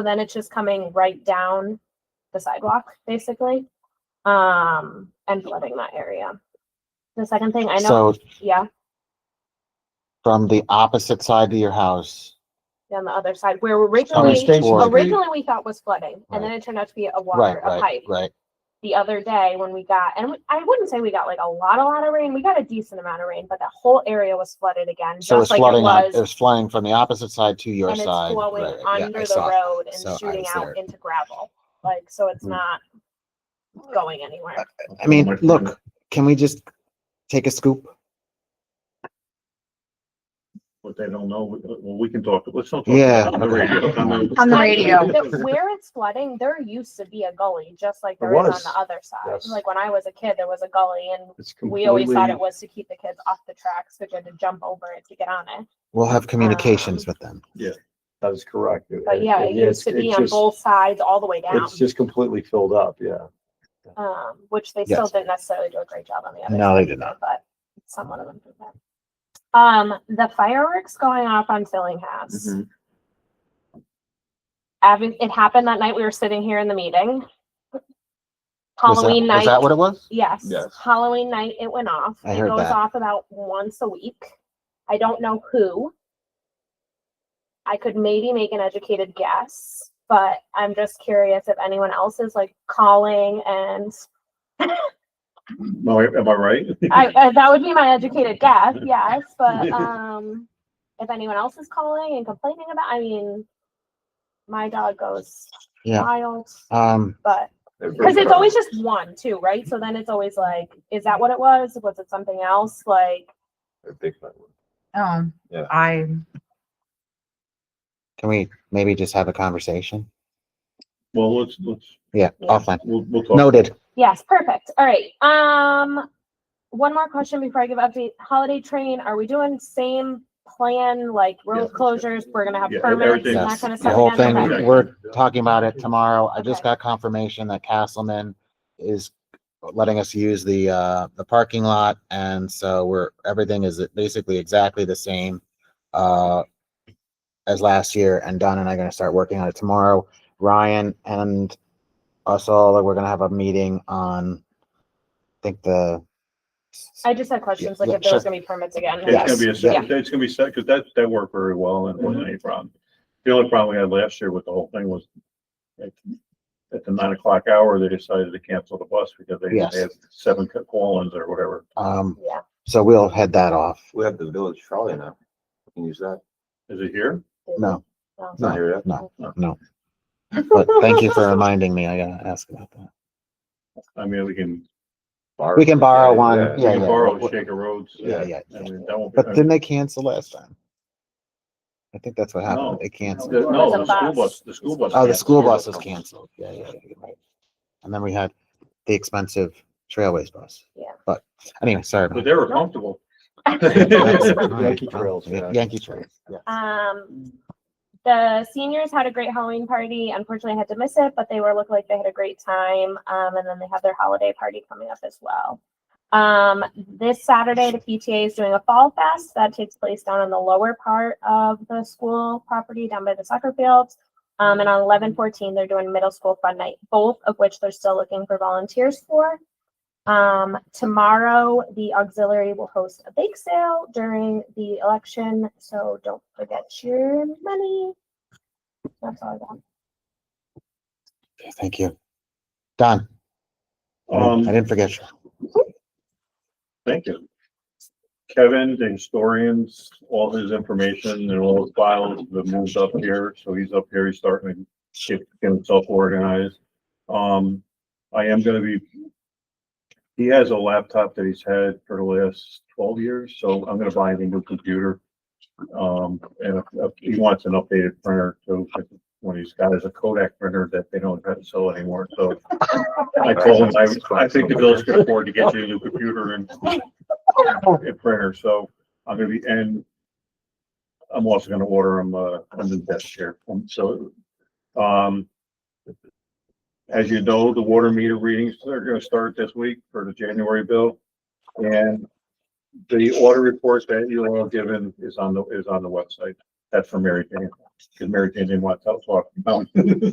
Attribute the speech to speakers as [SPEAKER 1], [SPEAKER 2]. [SPEAKER 1] So then it's just coming right down the sidewalk, basically, um, and flooding that area. The second thing I know,
[SPEAKER 2] So
[SPEAKER 1] yeah,
[SPEAKER 2] from the opposite side of your house,
[SPEAKER 1] on the other side, where
[SPEAKER 2] coming
[SPEAKER 1] originally,
[SPEAKER 2] toward, right,
[SPEAKER 1] originally we thought was flooding, and then it turned out to be a water, a
[SPEAKER 2] right,
[SPEAKER 1] pipe.
[SPEAKER 2] right,
[SPEAKER 1] The other day when we got, and we- I wouldn't say we got like a lot, a lot of rain, we got a decent amount of rain, but that whole area was flooded again,
[SPEAKER 2] so
[SPEAKER 1] just
[SPEAKER 2] it's
[SPEAKER 1] like it
[SPEAKER 2] flooding, on-
[SPEAKER 1] was.
[SPEAKER 2] it was flying from the opposite side to your
[SPEAKER 1] And it's
[SPEAKER 2] side.
[SPEAKER 1] flowing
[SPEAKER 2] right, yeah.
[SPEAKER 1] under
[SPEAKER 3] I
[SPEAKER 1] the
[SPEAKER 3] saw it.
[SPEAKER 1] road
[SPEAKER 3] So I
[SPEAKER 1] and shooting
[SPEAKER 3] was there.
[SPEAKER 1] out into gravel, like, so it's
[SPEAKER 2] Mhm.
[SPEAKER 1] not going anywhere.
[SPEAKER 2] I mean, look, can we just take a scoop?
[SPEAKER 4] What they don't know, we- well, we can talk, let's not talk.
[SPEAKER 2] Yeah.
[SPEAKER 4] On the radio. I mean,
[SPEAKER 5] On the
[SPEAKER 1] I
[SPEAKER 5] radio.
[SPEAKER 1] think that Where it's flooding, there used to be a gully, just like
[SPEAKER 6] There
[SPEAKER 1] there is on
[SPEAKER 6] was.
[SPEAKER 1] the other side.
[SPEAKER 6] Yes.
[SPEAKER 1] Like when I was a kid, there was a gully and
[SPEAKER 6] It's
[SPEAKER 1] we always
[SPEAKER 6] completely,
[SPEAKER 1] thought it was to keep the kids off the tracks, but you had to jump over it to get on it.
[SPEAKER 2] We'll have communications
[SPEAKER 1] Um,
[SPEAKER 2] with them.
[SPEAKER 6] that is correct.
[SPEAKER 1] But yeah, it used to be on both sides all the way down,
[SPEAKER 6] It's just completely filled up, yeah.
[SPEAKER 1] um, which they still
[SPEAKER 2] Yes.
[SPEAKER 1] didn't necessarily do a great job on the other.
[SPEAKER 2] No,
[SPEAKER 1] side,
[SPEAKER 2] they did not.
[SPEAKER 1] But somewhat of an improvement. Um, the fireworks going off on Fillinghouse.
[SPEAKER 4] mhm.
[SPEAKER 1] Abby, it happened that night we were sitting here in the meeting.
[SPEAKER 2] Was that-
[SPEAKER 1] Halloween night.
[SPEAKER 2] Was that what it was?
[SPEAKER 1] Yes.
[SPEAKER 4] Yes.
[SPEAKER 1] Halloween night, it went off.
[SPEAKER 2] I
[SPEAKER 1] it
[SPEAKER 2] heard
[SPEAKER 1] goes
[SPEAKER 2] that.
[SPEAKER 1] off about once a week. I don't know who. I could maybe make an educated guess, but I'm just curious if anyone else is like calling and
[SPEAKER 4] No, am I right?
[SPEAKER 1] I, I that would be my educated guess, yes, but um if anyone else is calling and complaining about I mean my dog goes
[SPEAKER 2] Yeah.
[SPEAKER 1] wild,
[SPEAKER 2] Um,
[SPEAKER 1] but Because it's always just one, too, right? So then it's always like, is that what it was? Was it something else? Like,
[SPEAKER 5] Um,
[SPEAKER 3] Yeah.
[SPEAKER 5] I,
[SPEAKER 2] can we maybe just have a conversation?
[SPEAKER 4] Well, let's, let's,
[SPEAKER 2] Yeah,
[SPEAKER 1] Yeah.
[SPEAKER 2] offline.
[SPEAKER 4] we'll, we'll talk.
[SPEAKER 2] Noted.
[SPEAKER 1] yes, perfect. All right. Um, one more question before I give update. Holiday train, are we doing same plan, like road
[SPEAKER 4] Yes.
[SPEAKER 1] closures? We're gonna have
[SPEAKER 4] Yeah,
[SPEAKER 1] permits and
[SPEAKER 4] everything.
[SPEAKER 1] that
[SPEAKER 2] Yes,
[SPEAKER 1] kind of
[SPEAKER 2] the
[SPEAKER 1] stuff?
[SPEAKER 2] whole
[SPEAKER 1] again? Okay.
[SPEAKER 2] thing, we're talking about it tomorrow. I just
[SPEAKER 1] Okay.
[SPEAKER 2] got confirmation that Castleman is letting us use the, uh, the parking lot. And so we're, everything is basically exactly the same, uh, as last year. And Don and I are gonna start working on it tomorrow. Ryan and us all, we're gonna have a meeting on, I think the,
[SPEAKER 1] I just had questions, like
[SPEAKER 2] Yeah,
[SPEAKER 1] if there was
[SPEAKER 2] sure.
[SPEAKER 1] gonna be permits again.
[SPEAKER 4] It's gonna be a,
[SPEAKER 2] Yes. Mm-hmm.
[SPEAKER 4] set- it's gonna be set, because that, that worked very well and it wasn't any problem. The only problem we had last year with the whole thing was at, at the nine o'clock hour, they decided to cancel the bus because they
[SPEAKER 2] Yes.
[SPEAKER 4] they had seven call-ins or whatever.
[SPEAKER 2] um,
[SPEAKER 1] Yeah,
[SPEAKER 2] so we'll head that off.
[SPEAKER 3] We have the village trolley now. We Can use that.
[SPEAKER 4] Is it here?
[SPEAKER 2] No,
[SPEAKER 1] no.
[SPEAKER 3] It's not here yet.
[SPEAKER 2] no, no. But thank you for reminding me. I gotta ask about that.
[SPEAKER 4] I mean, we can,
[SPEAKER 2] We can borrow one,
[SPEAKER 4] we
[SPEAKER 2] Yeah,
[SPEAKER 4] can
[SPEAKER 2] yeah.
[SPEAKER 4] borrow Shaker Roads.
[SPEAKER 2] Yeah, yeah.
[SPEAKER 4] I mean, that won't be.
[SPEAKER 2] But didn't they cancel last time? I think that's what happened.
[SPEAKER 4] No.
[SPEAKER 2] They canceled.
[SPEAKER 4] The- No, the
[SPEAKER 1] It's a
[SPEAKER 4] school
[SPEAKER 1] bus.
[SPEAKER 4] bus, the school bus.
[SPEAKER 2] Oh, the
[SPEAKER 4] canceled.
[SPEAKER 2] school bus was canceled. Yeah, yeah, yeah, right. And then we had the expensive trailways bus.
[SPEAKER 1] Yeah.
[SPEAKER 2] But anyway, sorry. about
[SPEAKER 4] But they were comfortable.
[SPEAKER 2] that.
[SPEAKER 6] Yankee Trails,
[SPEAKER 2] Yeah,
[SPEAKER 6] yeah.
[SPEAKER 2] Yankee Trails, yeah.
[SPEAKER 1] Um, the seniors had a great Halloween party. Unfortunately, I had to miss it, but they were looking like they had a great time. Um, and then they have their holiday party coming up as well. Um, this Saturday, the PTA is doing a fall fest that takes place down in the lower part of the school property, down by the soccer fields. Um, and on eleven fourteen, they're doing middle school fun night, both of which they're still looking for volunteers for. Um, tomorrow, the auxiliary will host a bake sale during the election, so don't forget your money. That's all I got.
[SPEAKER 2] Okay, Thank you. Don, I
[SPEAKER 4] Um,
[SPEAKER 2] didn't- I didn't forget you.
[SPEAKER 4] Thank you. Kevin, the historians, all his information and all his files have moved up here, so he's up here, he's starting to get himself organized. Um, I am gonna be. He has a laptop that he's had for the last twelve years, so I'm gonna buy him a new computer. Um, and if- if he wants an updated printer too, when he's got is a Kodak printer that they don't have to sell anymore, so. I told him, I, I think the village can afford to get you a new computer and a printer, so I'm gonna be, and I'm also gonna order them, uh, a new desk chair, Um, so, um, as you know, the water meter readings, they're gonna start this week for the January bill, and the order report that you all given is on the, is on the website, that's from Mary Jane. because Mary Jane didn't want to tell us. what- no.